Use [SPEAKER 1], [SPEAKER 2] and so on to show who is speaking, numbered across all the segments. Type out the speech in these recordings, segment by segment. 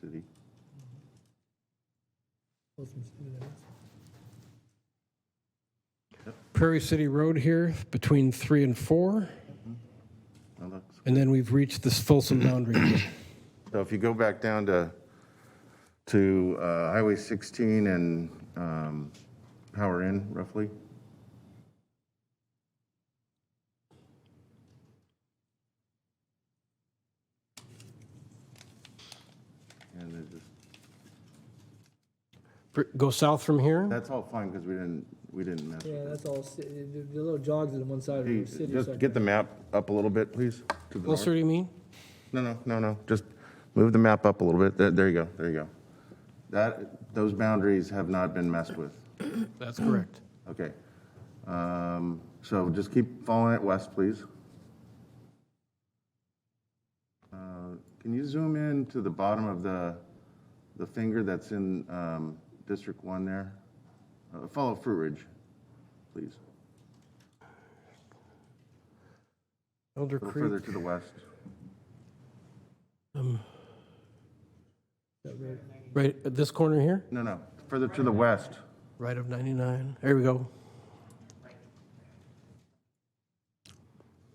[SPEAKER 1] City.
[SPEAKER 2] Prairie City Road here between three and four,
[SPEAKER 1] That looks-
[SPEAKER 2] and then we've reached this Folsom boundary.
[SPEAKER 1] So if you go back down to, to uh, Highway 16 and um, Power Inn roughly, and it just
[SPEAKER 2] Go south from here?
[SPEAKER 1] That's all fine because we didn't, we didn't mess
[SPEAKER 3] Yeah,
[SPEAKER 1] with
[SPEAKER 3] that's all, ci- the the little jogs on one side of the
[SPEAKER 1] it.
[SPEAKER 3] city.
[SPEAKER 1] Just get the map up a little bit, please. to the north.
[SPEAKER 2] Closer, do you mean?
[SPEAKER 1] No, no, no, no, just move the map up a little bit. There, there you go, there you go. That, those boundaries have not been messed with.
[SPEAKER 2] That's correct.
[SPEAKER 1] Okay. Um, So just keep following it west, please. Uh, Can you zoom in to the bottom of the, the finger that's in um, District 1 there? Uh, Follow Fruit Ridge, please.
[SPEAKER 2] Elder
[SPEAKER 1] A little further
[SPEAKER 2] Creek,
[SPEAKER 1] to the west.
[SPEAKER 2] right at this corner here?
[SPEAKER 1] No, no, further to the west.
[SPEAKER 2] Right of 99. There we go.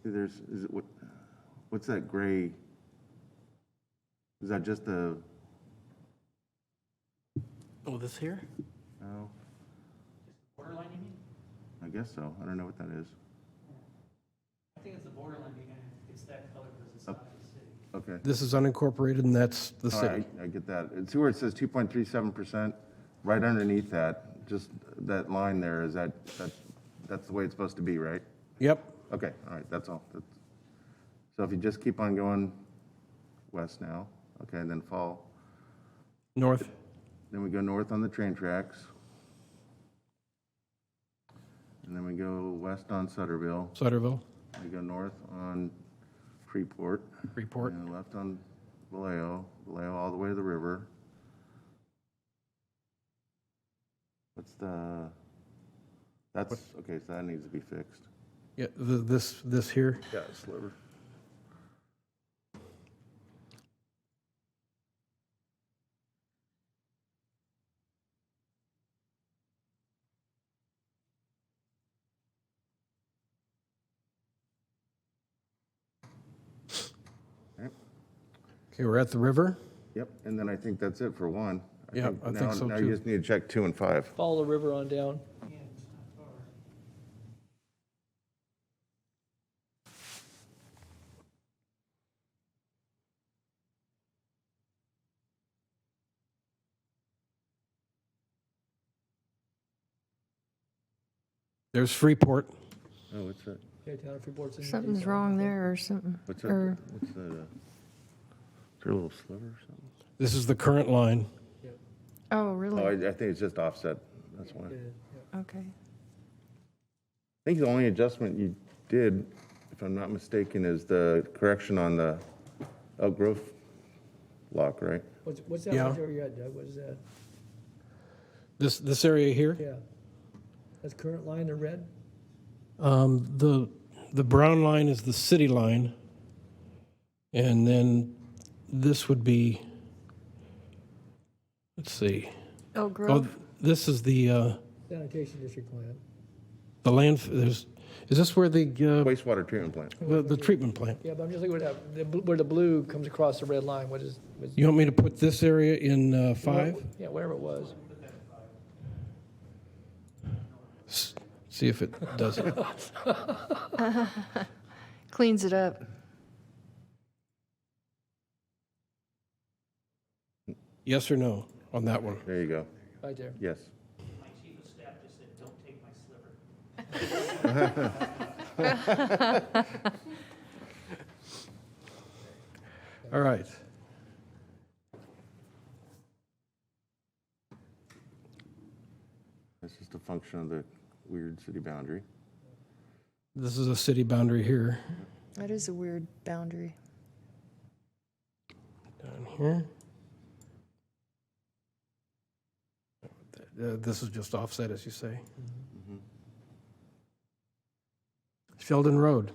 [SPEAKER 1] See, There's, is it, what, what's that gray? Is that just the,
[SPEAKER 2] Oh, this here?
[SPEAKER 1] no? Borderline, you mean? I guess so. I don't know what that is.
[SPEAKER 4] I think it's the borderline, being, it's that color because it's not the city.
[SPEAKER 1] Okay.
[SPEAKER 2] This is unincorporated, and that's the
[SPEAKER 1] All
[SPEAKER 2] city.
[SPEAKER 1] right, I get that. And See where it says 2.37%? Right underneath that, just that line there, is that, that, that's the way it's supposed to be, right?
[SPEAKER 2] Yep.
[SPEAKER 1] Okay, all right, that's all. That's- So if you just keep on going west now, okay, and then fall,
[SPEAKER 2] North.
[SPEAKER 1] then we go north on the train tracks. And then we go west on Sutterville,
[SPEAKER 2] Sutterville.
[SPEAKER 1] we go north on Freeport.
[SPEAKER 2] Freeport.
[SPEAKER 1] And left on Vallejo, Vallejo all the way to the river. What's the, that's, okay, so that needs to be fixed.
[SPEAKER 2] Yeah, the, this, this here.
[SPEAKER 1] Yeah, sliver.
[SPEAKER 2] Okay, we're at the river.
[SPEAKER 1] Yep, and then I think that's it for one.
[SPEAKER 2] Yeah, I think
[SPEAKER 1] now-
[SPEAKER 2] so
[SPEAKER 1] Now
[SPEAKER 2] too.
[SPEAKER 1] you just need to check two and five.
[SPEAKER 3] Follow the river on down.
[SPEAKER 2] There's Freeport.
[SPEAKER 1] Oh, what's that?
[SPEAKER 3] Okay, town of Freeport's in-
[SPEAKER 5] Something's wrong there or something,
[SPEAKER 1] What's that?
[SPEAKER 5] or
[SPEAKER 1] What's that? uh, Is there a little sliver or something?
[SPEAKER 2] This is the current line.
[SPEAKER 5] Oh,
[SPEAKER 1] Oh,
[SPEAKER 5] really?
[SPEAKER 1] I, I think it's just offset. That's why.
[SPEAKER 3] Yeah,
[SPEAKER 1] I
[SPEAKER 3] yeah.
[SPEAKER 5] Okay.
[SPEAKER 1] think the only adjustment you did, if I'm not mistaken, is the correction on the Elk Grove lock, right?
[SPEAKER 3] What's, what's that
[SPEAKER 2] Yeah.
[SPEAKER 3] one you're at, Doug? What is that?
[SPEAKER 2] This, this area here.
[SPEAKER 3] Yeah. That's current line in red?
[SPEAKER 2] Um, the, the brown line is the city line. And then this would be, let's see. Oh,
[SPEAKER 5] Elk Grove?
[SPEAKER 2] this is the, uh,
[SPEAKER 3] Sanitation district plan.
[SPEAKER 2] the land, there's, is this where the,
[SPEAKER 1] Wastewater treatment plant.
[SPEAKER 2] uh, the, the treatment plant?
[SPEAKER 3] Yeah, but I'm just looking at that, the bl- where the blue comes across the red line, what is? what's-
[SPEAKER 2] You want me to put this area in, uh, five?
[SPEAKER 3] Yeah, whatever it was.
[SPEAKER 2] S- See if it does it.
[SPEAKER 5] Cleans it up.
[SPEAKER 2] Yes or no on that one?
[SPEAKER 1] There you go.
[SPEAKER 3] Right there.
[SPEAKER 1] Yes.
[SPEAKER 4] My chief of staff just said, don't take my sliver.
[SPEAKER 2] All right.
[SPEAKER 1] That's just a function of the weird city boundary.
[SPEAKER 2] This is a city boundary here,
[SPEAKER 5] That is a weird boundary.
[SPEAKER 2] down here. Uh, This is just
[SPEAKER 3] Mm-hmm.
[SPEAKER 1] Mm-hmm.
[SPEAKER 2] offset, as you say. Sheldon Road.